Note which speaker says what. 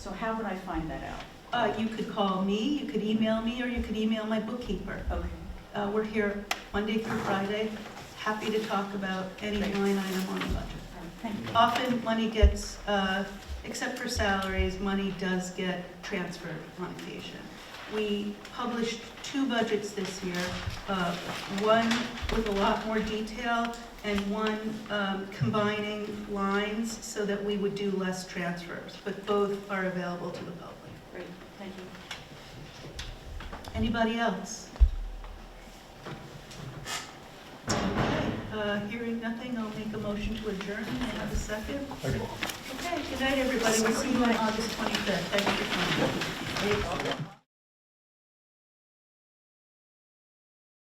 Speaker 1: So how would I find that out?
Speaker 2: Uh, You could call me, you could email me, or you could email my bookkeeper.
Speaker 1: Okay.
Speaker 2: Uh, We're here Monday through Friday, happy to talk about any
Speaker 1: Great.
Speaker 2: line item on the budget.
Speaker 1: Thank you.
Speaker 2: Often, money gets, uh, except for salaries, money does get transferred on occasion. We published two budgets this year, uh, one with a lot more detail and one um, combining lines so that we would do less transfers, but both are available to the public.
Speaker 1: Great, thank you.
Speaker 2: Anybody else? Okay, uh, Hearing nothing, I'll make a motion to adjourn. May I have a second?
Speaker 3: Second.
Speaker 2: Okay, good night, everybody. We'll see you on August 25th. Thank you for coming.